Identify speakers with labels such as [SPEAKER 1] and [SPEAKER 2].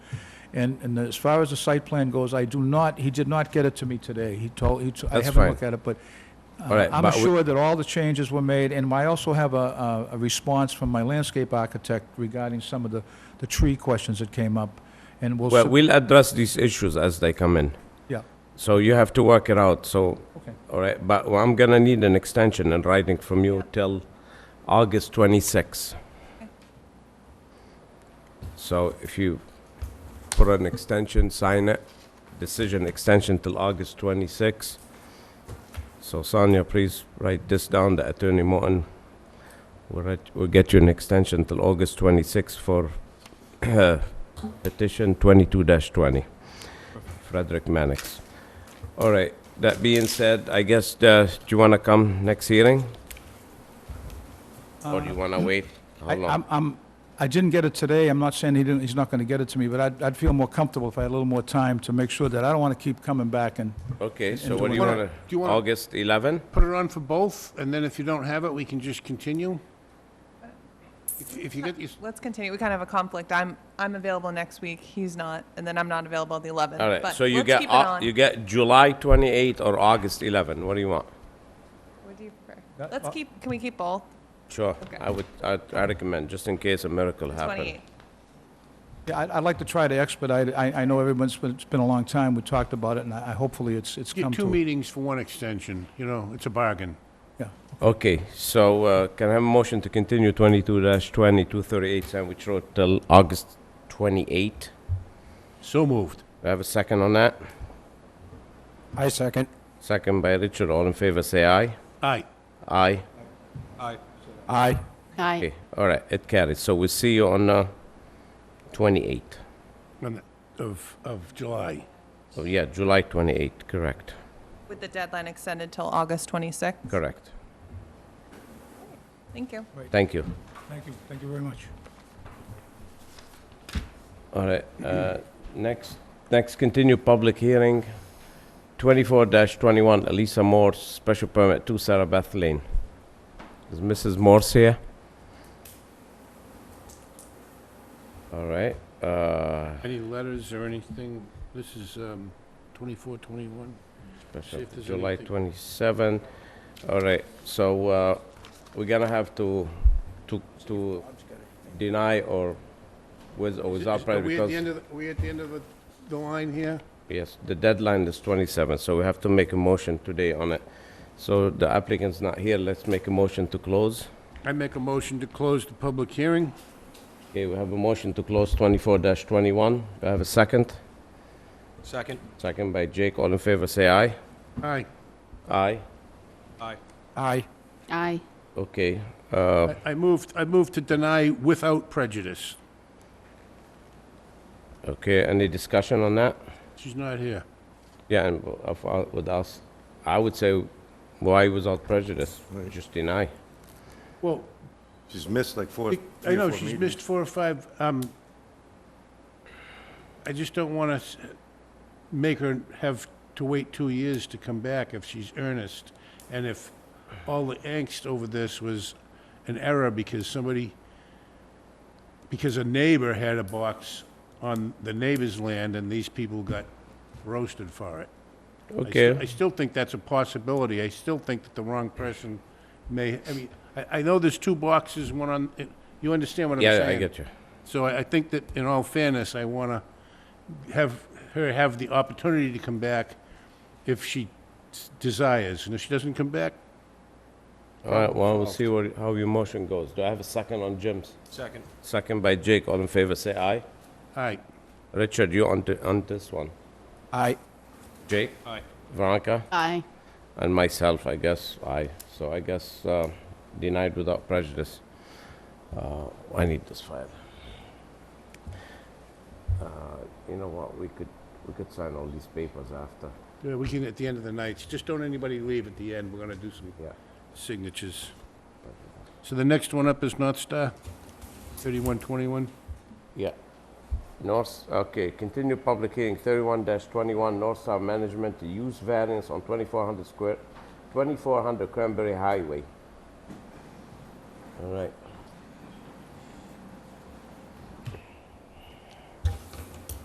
[SPEAKER 1] And, and as far as the site plan goes, I do not, he did not get it to me today. He told, he, t- I
[SPEAKER 2] That's
[SPEAKER 1] haven't
[SPEAKER 2] fine.
[SPEAKER 1] looked at it, but uh,
[SPEAKER 2] All right,
[SPEAKER 1] I'm
[SPEAKER 2] but we-
[SPEAKER 1] assured that all the changes were made, and I also have a- a, a response from my landscape architect regarding some of the, the tree questions that came up, and we'll.
[SPEAKER 2] Well,
[SPEAKER 1] sub-
[SPEAKER 2] we'll address these issues as they come in.
[SPEAKER 1] Yeah.
[SPEAKER 2] So you have to work it out, so,
[SPEAKER 1] Okay.
[SPEAKER 2] all right, but I'm gonna need an extension in writing from you till August 26. So if you put an extension, sign it, decision extension till August 26. So Sonia, please write this down, the Attorney Morton will write- will get you an extension till August 26 for petition 22-20, Frederick Mannix. All right, that being said, I guess, uh, do you want to come next hearing? Or do you want to wait? How
[SPEAKER 1] Uh, I,
[SPEAKER 2] long?
[SPEAKER 1] I'm, I'm, I didn't get it today, I'm not saying he didn't, he's not gonna get it to me, but I'd, I'd feel more comfortable if I had a little more time to make sure that I don't wanna keep coming back and,
[SPEAKER 2] Okay, so
[SPEAKER 1] and
[SPEAKER 2] what do
[SPEAKER 1] do
[SPEAKER 2] you
[SPEAKER 1] we-
[SPEAKER 2] want
[SPEAKER 3] Do you
[SPEAKER 2] to,
[SPEAKER 3] wanna-
[SPEAKER 2] August 11?
[SPEAKER 3] Put it on for both, and then if you don't have it, we can just continue? If- If you get, these-
[SPEAKER 4] Let's continue. We kind of have a conflict. I'm, I'm available next week. He's not, and then I'm not available the 11th.
[SPEAKER 2] All right,
[SPEAKER 4] but
[SPEAKER 2] so you
[SPEAKER 4] let's
[SPEAKER 2] get,
[SPEAKER 4] keep it
[SPEAKER 2] Au-
[SPEAKER 4] on.
[SPEAKER 2] you get July 28 or August 11, what do you want?
[SPEAKER 4] What do you prefer?
[SPEAKER 1] Uh,
[SPEAKER 4] Let's
[SPEAKER 1] uh,
[SPEAKER 4] keep, can we keep both?
[SPEAKER 2] Sure,
[SPEAKER 4] Okay.
[SPEAKER 2] I would, I I recommend, just in case a miracle happens.
[SPEAKER 4] 28.
[SPEAKER 1] yeah, I'd, I'd like to try to expedite it, I, I know everyone's, been- it's been a long time, we talked about it, and I, I- hopefully it's, it's
[SPEAKER 3] get
[SPEAKER 1] come
[SPEAKER 3] two
[SPEAKER 1] to. it.
[SPEAKER 3] meetings for one extension, you know, it's a bargain.
[SPEAKER 1] Yeah.
[SPEAKER 2] Okay, so uh, can I have a motion to continue 22-20, 238 Sandwich Road till August 28?
[SPEAKER 3] So moved.
[SPEAKER 2] Do I have a second on that?
[SPEAKER 5] I second.
[SPEAKER 2] Second by Richard, all in favor, say aye.
[SPEAKER 3] Aye.
[SPEAKER 2] Aye.
[SPEAKER 5] Aye.
[SPEAKER 6] Aye.
[SPEAKER 2] Okay, all right, it carries. So we'll see you on uh, 28.
[SPEAKER 3] on the- Of, of July.
[SPEAKER 2] Oh, yeah, July 28, correct,
[SPEAKER 4] With the deadline extended till August 26th.
[SPEAKER 2] correct.
[SPEAKER 4] Thank you.
[SPEAKER 2] Thank you.
[SPEAKER 1] Thank you, thank you very much.
[SPEAKER 2] All right, uh, next, next continued public hearing, 24-21, Elisa Moore, special permit, 2 Sarah Beth Lane. Is Mrs. Morse here? All right, uh,
[SPEAKER 3] Any letters or anything? This is um, 24, 21?
[SPEAKER 2] special-
[SPEAKER 3] See if there's
[SPEAKER 2] July
[SPEAKER 3] anything.
[SPEAKER 2] 27. All right, so uh, we're gonna have to, to, to deny or with or without
[SPEAKER 3] Are
[SPEAKER 2] prejudice.
[SPEAKER 3] we at
[SPEAKER 2] because-
[SPEAKER 3] the end of, the- we at the end of the- the line here?
[SPEAKER 2] Yes, the deadline is 27, so we have to make a motion today on it. So the applicant's not here, let's make a motion to close.
[SPEAKER 3] I make a motion to close the public hearing.
[SPEAKER 2] Okay, we have a motion to close 24-21. Do I have a second?
[SPEAKER 5] Second.
[SPEAKER 2] Second by Jake, all in favor, say aye.
[SPEAKER 3] Aye.
[SPEAKER 2] Aye.
[SPEAKER 5] Aye.
[SPEAKER 6] Aye.
[SPEAKER 2] Okay, uh,
[SPEAKER 3] I- I moved, I moved to deny without prejudice.
[SPEAKER 2] okay, any discussion on that?
[SPEAKER 3] She's not here.
[SPEAKER 2] Yeah, and w- of- uh, with us, I would say, why without prejudice? Just deny.
[SPEAKER 3] Well,
[SPEAKER 7] She's missed like four,
[SPEAKER 3] I
[SPEAKER 7] three
[SPEAKER 3] know,
[SPEAKER 7] or four
[SPEAKER 3] she's
[SPEAKER 7] meetings.
[SPEAKER 3] missed four or five, um, I just don't want to make her have to wait two years to come back if she's earnest. And if all the angst over this was an error because somebody, because a neighbor had a box on the neighbor's land and these people got roasted for it. I
[SPEAKER 2] Okay.
[SPEAKER 3] sti- I still think that's a possibility. I still think that the wrong person may, I mean, I, I know there's two boxes, one on, you understand what I'm saying?
[SPEAKER 2] Yeah, I get you.
[SPEAKER 3] So I I think that, in all fairness, I want to have her have the opportunity to come back if she s- desires. And if she doesn't come back,
[SPEAKER 2] All right, well, we'll see what, how your motion goes. Do I have a second on Jim's? Second. Second by Jake, all in favor, say aye.
[SPEAKER 3] all right.
[SPEAKER 2] Richard, you on, th- on this one?
[SPEAKER 5] Aye.
[SPEAKER 2] Jake? Aye. Veronica?
[SPEAKER 6] Aye.
[SPEAKER 2] And myself, I guess, aye. So I guess uh, denied without prejudice. Uh, I need this file. Uh, You know what, we could, we could sign all these papers after.
[SPEAKER 3] Yeah, uh, We can, at the end of the night, just don't anybody leave at the end. We're going to do some
[SPEAKER 2] Yeah.
[SPEAKER 3] signatures. So the next one up is North Star, 3121.
[SPEAKER 2] Yeah. North, okay, continue public hearing, thirty-one twenty-one, North Star Management to use variance on twenty-four hundred square, twenty-four hundred Cranberry Highway. All right,